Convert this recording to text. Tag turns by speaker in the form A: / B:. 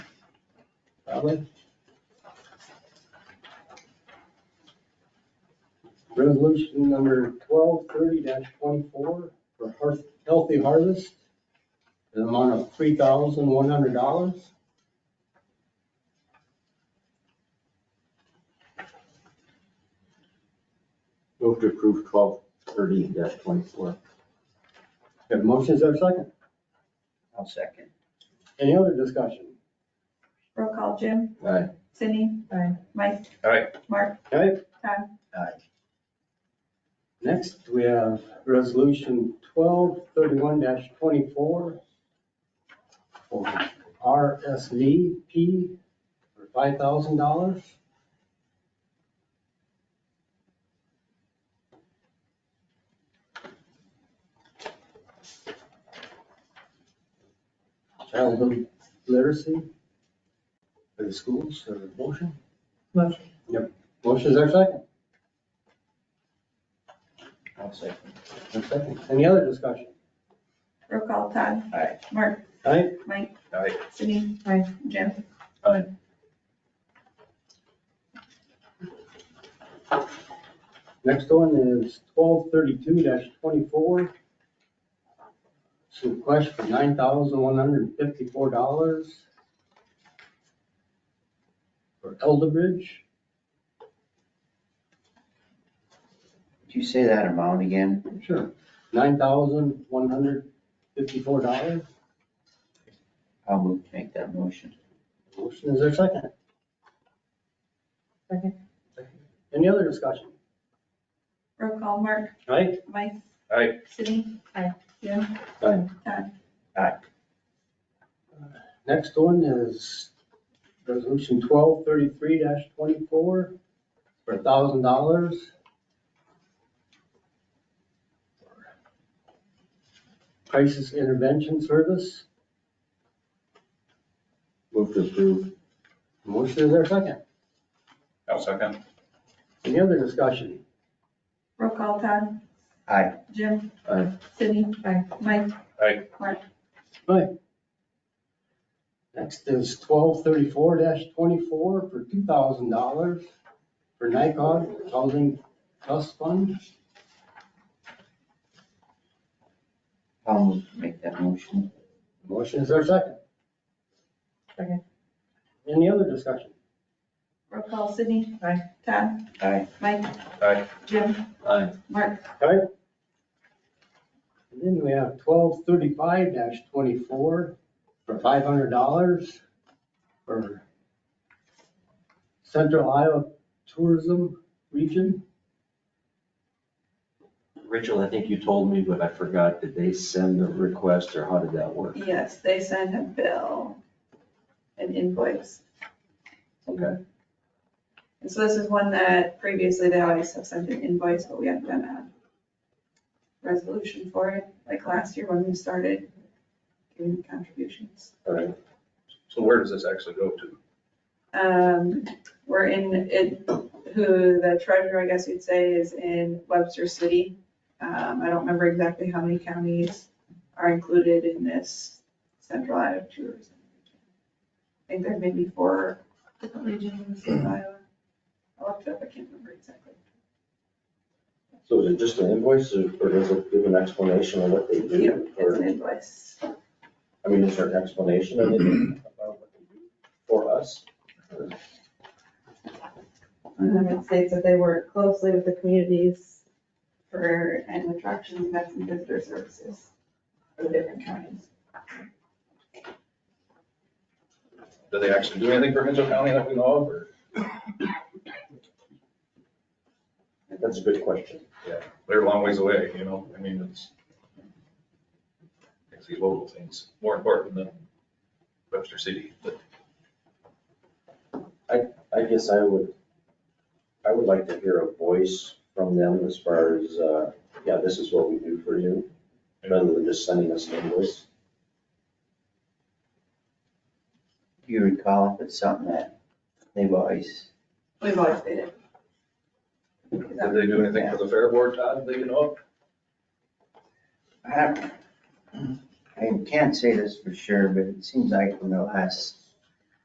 A: Godwin. Resolution number twelve thirty twenty-four for Har- Healthy Harvest, an amount of three thousand one hundred dollars.
B: Move to approve twelve thirty twenty-four.
A: Have motions, there a second?
C: I'll second.
A: Any other discussion?
D: Roll call, Jim,
B: Aye.
D: Cindy,
E: Aye.
D: Mike.
C: Aye.
D: Mark,
A: Okay,
D: Todd,
A: next we have resolution twelve thirty-one twenty-four for RSVP for five thousand dollars. Childhood literacy for the schools, uh, motion?
E: Motion.
A: Yep, motion is our second.
C: I'll second.
A: A second. Any other discussion?
D: roll call, Todd.
C: Aye.
D: Mark,
A: Aye.
D: Mike,
C: Aye.
D: Cindy.
E: Aye.
D: Jim,
A: Next one is twelve thirty-two twenty-four. It's a request for nine thousand one hundred and fifty-four dollars for Elderbridge.
C: Did you say that amount again?
A: Sure. Nine thousand one hundred fifty-four dollars.
C: I'll move to make that motion.
A: Motion is there a second?
E: Second.
A: Any other discussion?
D: roll call, Mark,
A: Right?
D: Mike.
C: Aye.
D: Cindy.
E: Aye.
D: Jim.
B: Aye.
D: Todd,
A: Next one is resolution twelve thirty-three twenty-four for thousand dollars. Crisis intervention service.
B: Move to approve.
A: Motion is there a second?
F: I'll second.
A: Any other discussion?
D: roll call, Todd.
C: Aye.
D: Jim,
B: Aye.
D: Cindy.
E: Aye.
D: Mike.
F: Aye.
D: Mark,
A: Next is twelve thirty-four twenty-four for two thousand dollars for NICOG Housing Trust Fund.
C: I'll move to make that motion.
A: Motion is there a second?
E: Second.
A: Any other discussion?
D: roll call, Cindy.
E: Aye.
D: Todd,
C: Aye.
D: Mike.
F: Aye.
D: Jim,
B: Aye.
D: Mark,
A: And then we have twelve thirty-five twenty-four for five hundred dollars for Central Iowa Tourism Region.
B: Rachel, I think you told me, but I forgot. Did they send the request or how did that work?
D: yes, they send a bill, an invoice.
B: Okay.
D: And so this is one that previously they always have sent an invoice, but we haven't done a resolution for it, like last year when we started giving contributions.
B: All right.
F: So where does this actually go to?
D: Um, we're in, it, who the treasurer, I guess you'd say, is in Webster City. Um, I don't remember exactly how many counties are included in this central Iowa tourism. region. I think there may be four different regions in Iowa. I looked it up, I can't remember exactly.
B: So is it just an invoice or or does it give an explanation of what they
D: Yeah,
B: do?
D: It's an
B: Or,
D: invoice.
B: I mean, is there an explanation of it about what they do for us? Or-
D: Um, It states that they work closely with the communities for animal attractions, events, and visitor services for the different counties.
F: Do they actually do anything for Henshaw County that we know of, or
B: That's a good question.
F: they're a long ways away, you know, I mean, it's. It's these local things, more important than Webster City, but
B: I guess I would, I would like to hear a voice from them as far as, uh, yeah, this is what we do for you, rather than just sending us an invoice.
C: Do you recall if it's something that they've always,
D: We've always did it. Is
F: did
D: that-
F: they do anything for the fair board, Todd, that you know of?
C: I I can't say this for sure, but it seems like in the last